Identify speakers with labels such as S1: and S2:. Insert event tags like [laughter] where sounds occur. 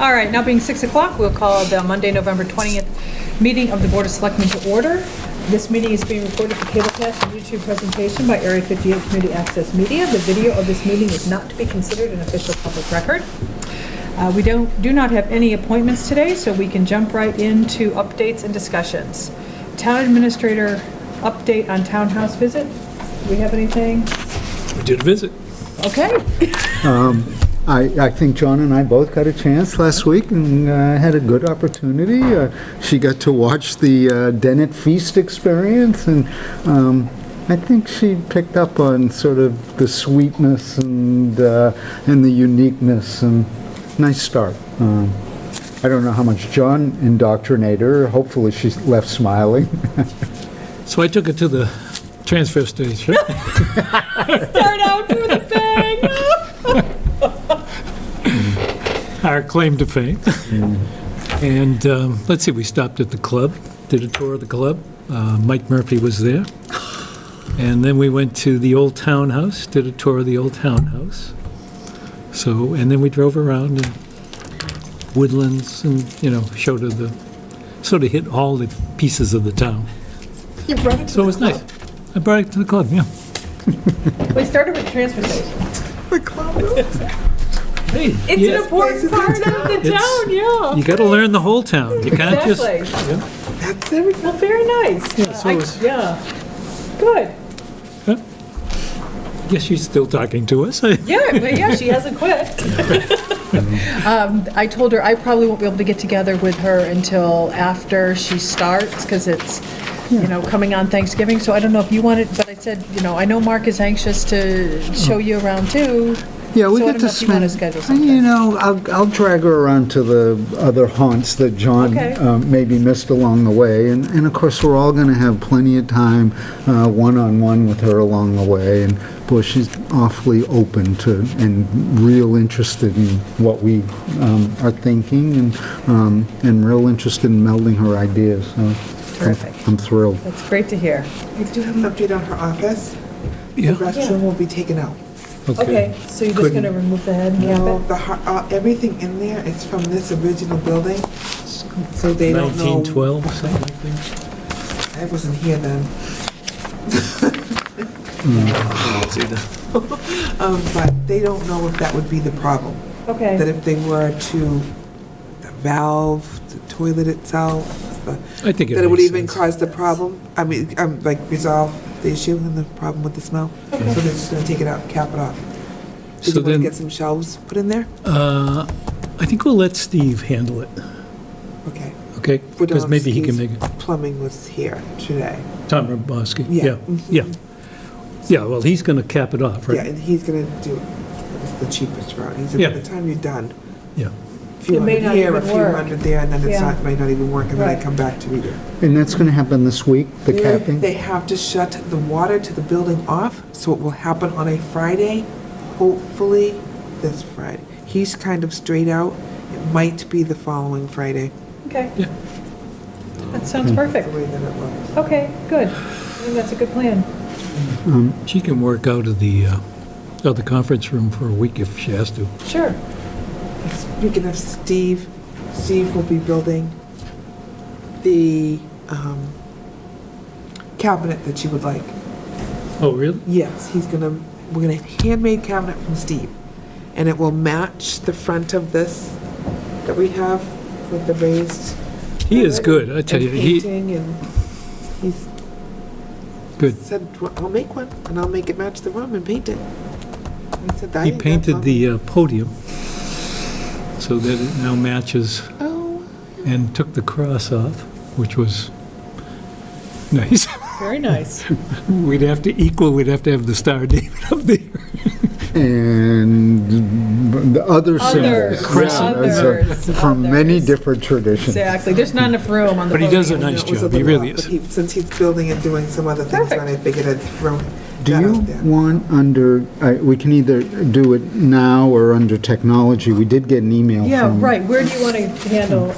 S1: All right, now being 6 o'clock, we'll call the Monday, November 20th meeting of the Board of Selectmen to order. This meeting is being recorded for cablecast and YouTube presentation by Area 58 Community Access Media. The video of this meeting is not to be considered an official public record. Uh, We don't, do not have any appointments today, so we can jump right into updates and discussions. Town Administrator update on townhouse visit? Do we have anything?
S2: We did a visit.
S1: Okay.
S3: I, I think John and I both got a chance last week and uh, had a good opportunity. Uh, She got to watch the uh, Dennett Feast experience, and um, I think she picked up on sort of the sweetness and, uh, and the uniqueness, and nice start. Um, I don't know how much John indoctrinated her, hopefully she left smiling.
S2: So I took it to the
S1: [laughs]
S2: transfer station.
S1: Start out with a bang.
S2: our claim to fame.
S1: Mm-hmm.
S2: And um, let's see, we stopped at the club, did a tour of the club. Uh, Mike Murphy was there. And then we went to the Old Town House, did a tour of the Old Town House. So, and then we drove around and woodlands and, you know, showed her the, sort of hit all the pieces of the town.
S1: You brought it
S2: So it was nice. I brought it to the club, yeah.
S1: We started with transfer station.
S2: Hey,
S1: It's
S2: yeah,
S1: an important part of the
S2: It's-
S1: town, yeah.
S2: You gotta learn the whole town. You can't just,
S1: Exactly.
S2: yeah.
S1: Well, very nice.
S2: Yeah, so
S1: I-
S2: it was-
S1: Yeah. Good.
S2: Yes, she's still talking to us. [laughs]
S1: Yeah, but yeah, she hasn't quit. [laughs] Um, I told her I probably won't be able to get together with her until after she starts, because it's, you know, coming on Thanksgiving, so I don't know if you want it, but I said, you know, I know Mark is anxious to show you around too.
S3: Yeah, we
S1: so I don't
S3: get to
S1: know if you wanna
S3: spend.
S1: schedule
S3: You
S1: something.
S3: know, I'll, I'll drag her around to the other haunts that John
S1: Okay.
S3: um, maybe missed along the way. And, and of course, we're all going to have plenty of time, uh, one-on-one with her along the way. And boy, she's awfully open to, and real interested in what we um, are thinking and, um, and real interested in melding her ideas, so. I'm-
S1: Terrific.
S3: I'm thrilled.
S1: That's great to hear.
S4: I do have an update on her office. The restroom will be taken out.
S1: Okay, so you're just gonna remove the head and
S4: No, the, har- uh, everything in there is from this original building, so they don't know.
S2: 1912, or something like that.
S4: I wasn't here then.
S2: Hmm.
S4: Um, but they don't know if that would be the problem, that
S1: Okay,
S4: if they were to valve the toilet itself, the-
S2: I think it
S4: that it would
S2: makes
S4: even
S2: sense.
S4: cause the problem, I mean, um, like resolve the issue and the problem with the smell. So they're just gonna take it out, and cap it off. Did
S2: Mm-hmm. So
S4: you wanna
S2: then-
S4: get some shelves put in there?
S2: Uh, I think we'll let Steve handle it,
S4: Okay.
S2: okay? Because maybe he can make
S4: Wodomski's
S2: it.
S4: Plumbing was here today.
S2: Tom Roboski,
S4: Yeah. Mm-hmm.
S2: yeah, yeah. Yeah, well, he's going to cap it off,
S4: Yeah,
S2: right?
S4: and he's gonna do, it's the cheapest route. He said,
S2: Yeah.
S4: by the time you're done,
S2: Yeah.
S4: a few
S1: It may
S4: hundred
S1: not
S4: here, a
S1: even
S4: few
S1: work.
S4: hundred there, and then it's
S1: Yeah.
S4: not, might not even work, and then I
S1: Right.
S4: come back to read it.
S3: And that's going to happen this week, the capping?
S4: They have to shut the water to the building off, so it will happen on a Friday, hopefully this Friday. He's kind of straight out. It might be the following Friday,
S1: okay.
S2: Yeah.
S1: That sounds perfect.
S4: the way that it looks.
S1: Okay, good. I think that's a good plan.
S2: She can work out of the, uh, out of the conference room for a week if she has to.
S1: Sure.
S4: Speaking of Steve, Steve will be building the um, cabinet that you would like.
S2: Oh, really?
S4: Yes, he's gonna, we're gonna handmade cabinet from Steve. And it will match the front of this that we have with the raised.
S2: He is good, I tell you,
S4: and
S2: he,
S4: Painting and he's
S2: good.
S4: said, "Well, I'll make one and I'll make it match the room and paint it. I said, "I
S2: He
S4: think that's
S2: painted
S4: all."
S2: the uh, podium so that it now matches
S4: Oh,
S2: and took the cross off, which was nice. [laughs]
S1: Very nice.
S2: We'd have to equal, we'd have to have the Star of David up there.
S3: and the other
S1: Others,
S3: symbols.
S2: Crescent.
S3: Yeah, it's a-
S1: others,
S3: From many
S1: others.
S3: different traditions.
S1: Exactly. There's not enough room on the
S2: But he
S1: podium.
S2: does a nice
S4: It was a
S2: job, he
S4: little
S2: really
S4: off, but
S2: is.
S4: he- Since he's building and doing some other things,
S1: Perfect.
S4: and I figured I'd throw
S3: Do
S4: that
S3: you
S4: out there.
S3: want under, I- we can either do it now or under technology. We did get an email from.
S1: Yeah, right. Where do you want to handle